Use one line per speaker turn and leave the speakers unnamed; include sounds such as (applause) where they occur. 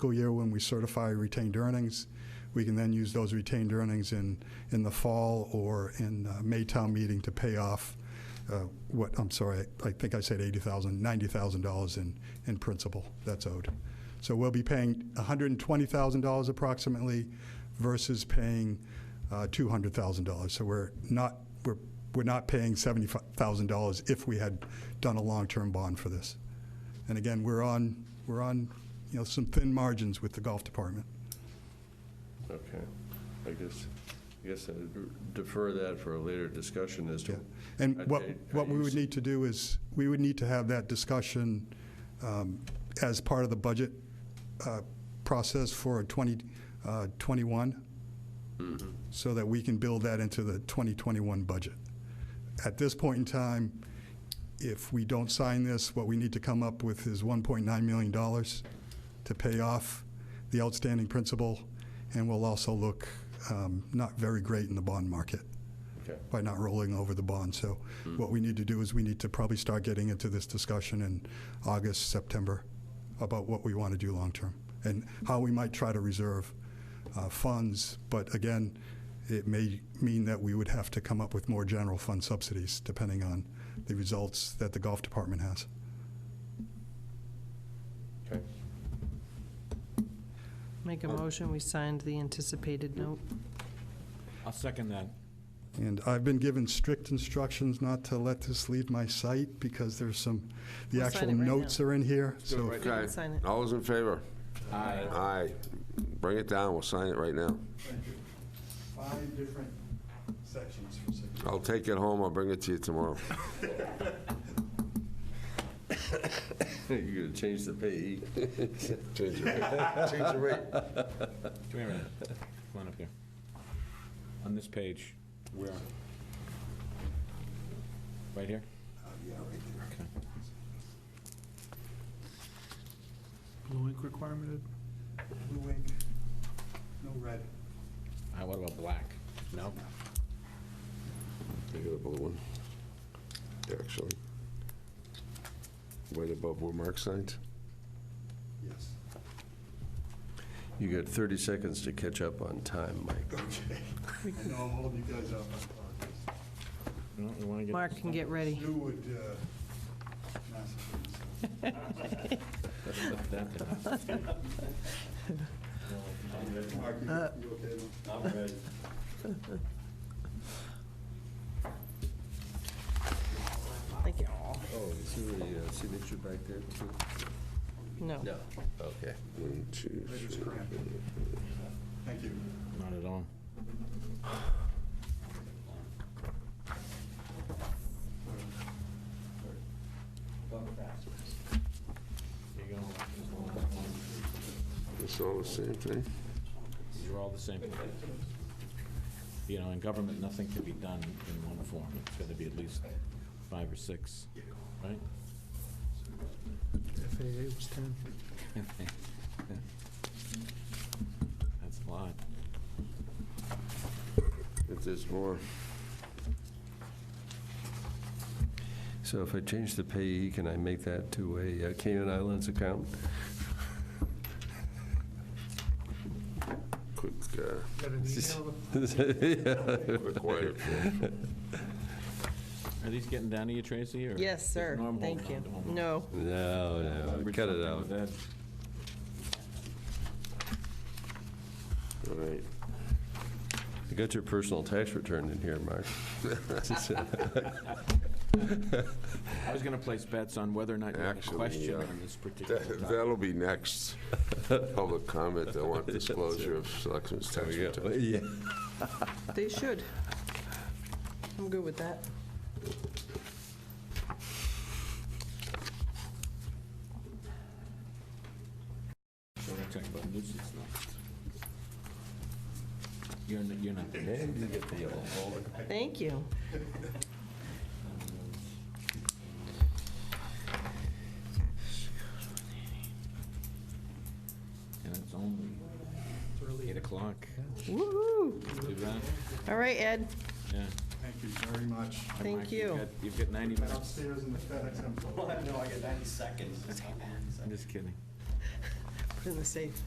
fiscal year when we certify retained earnings. We can then use those retained earnings in, in the fall or in uh, May town meeting to pay off uh, what, I'm sorry, I think I said $80,000, $90,000 in, in principal that's owed. So we'll be paying $120,000 approximately versus paying uh, $200,000. So we're not, we're, we're not paying $75,000 if we had done a long-term bond for this. And again, we're on, we're on, you know, some thin margins with the golf department.
Okay, I guess, I guess I defer that for a later discussion as
Yeah.
to.
And what,
Okay,
what we would
use-
need to do is, we would need to have that discussion um, as part of the budget uh, process for uh, 2021,
Mm-hmm.
so that we can build that into the 2021 budget. At this point in time, if we don't sign this, what we need to come up with is $1.9 million to pay off the outstanding principal, and we'll also look um, not very great in the bond market
Okay,
by not rolling over the bond. So what we need to do is we need to probably start getting into this discussion in August, September, about what we want to do long-term and how we might try to reserve uh, funds. But again, it may mean that we would have to come up with more general fund subsidies, depending on the results that the golf department has.
okay. (laughs)
Make a motion, we signed the anticipated note.
I'll second that.
And I've been given strict instructions not to let this leave my site because there's some, the
We'll sign
actual
it right now.
notes are in here. So if-
can
Okay,
sign it.
all those in favor?
Aye.
Aye. Bring it down, we'll sign it right now.
five different sections
(laughs)
for signature.
I'll take it home, I'll bring it to
(laughs)
you tomorrow.
You're gonna change the pay.
Change the rate. Change the rate.
Come here a minute. Come on up here. On this page. Where? Right here?
Blue ink requirement?
Blue ink, no red.
Uh, What about black? No?
I got a blue one, actually. Right above where Mark signed.
Yes.
You got 30 seconds to catch up on time, Mike.
Okay. I know I'm holding you guys up. I apologize.
No, you want to get...
Mark can get
(laughs)
ready.
Sue would, uh, massacre
That thing.
this. Mark, you you okay? now?
Thank you.
Oh, is there a uh, signature back there too?
No.
No, okay.
One, two,
I
three.
just cramped. Thank you.
Not at all. There you go.
It's all the same thing.
These are all the same. You know, in government, nothing can be done in one form. It's got to be at least five or six, right?
FAA was 10.
That's a lot.
If there's more,
So if I change the payee, can I make that to a uh, Cayman Islands account?
quick, uh, (laughs)
Got an email?
(laughs)
quick wire.
Are these getting down to you, Tracy, or?
Yes,
is
sir.
Norm
Thank you.
holding on to 'em?
No.
No, no,
Average
cut it
something
out.
with that.
All right.
You got your personal tax return in here,
(laughs)
Mark. (laughs)
I was going to place bets on whether or not you had a
Actually,
question
uh,
on this particular
(laughs)
That-
topic.
That'll be next. Public comment, I want disclosure of selectmen's tax
There we go.
return.
Yeah.
They should. I'm good with that.
So we're talking about nuisance next. You're not, you're not there.
And you get the yellow.
Thank you.
And it's only 8 o'clock.
Woohoo.
Too bad.
All right, Ed.
Yeah.
Thank you very much.
Hey,
Thank
Mike,
you.
You've got, you've got 90 minutes.
Upstairs in the FedEx envelope.
I'm just kidding.
in the safe.